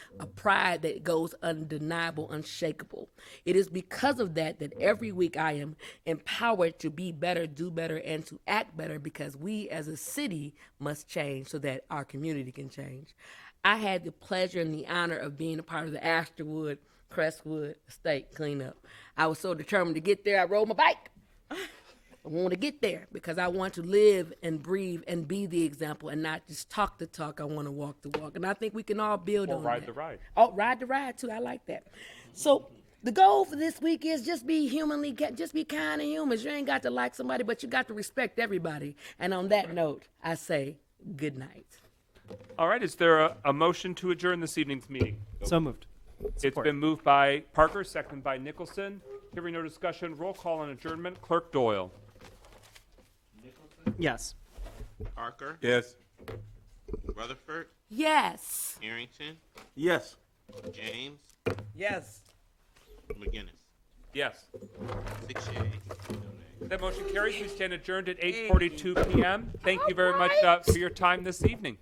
a pride that goes undeniable, unshakable. It is because of that that every week I am empowered to be better, do better, and to act better because we as a city must change so that our community can change. I had the pleasure and the honor of being a part of the Astorwood Crestwood Estate cleanup. I was so determined to get there, I rode my bike. I want to get there because I want to live and breathe and be the example and not just talk the talk. I want to walk the walk. And I think we can all build Or on ride that. the ride. Oh, ride the ride too. I like that. So the goal for this week is just be humanly, ca- just be kind to humans. You ain't got to like somebody, but you got to respect everybody. And on that note, I say good night. All right, is there a, a motion to adjourn this evening's meeting? So moved. It's been moved by Parker, seconded by Nicholson. Hearing no discussion, roll call on adjournment. Clerk Doyle. Yes. Parker, Yes. Rutherford, Yes. Arrington, Yes. James, Yes. McGinnis. Yes. Six yeas. That motion carries. We stand adjourned at 8:42 p.m. Thank you very much uh, for your time this evening.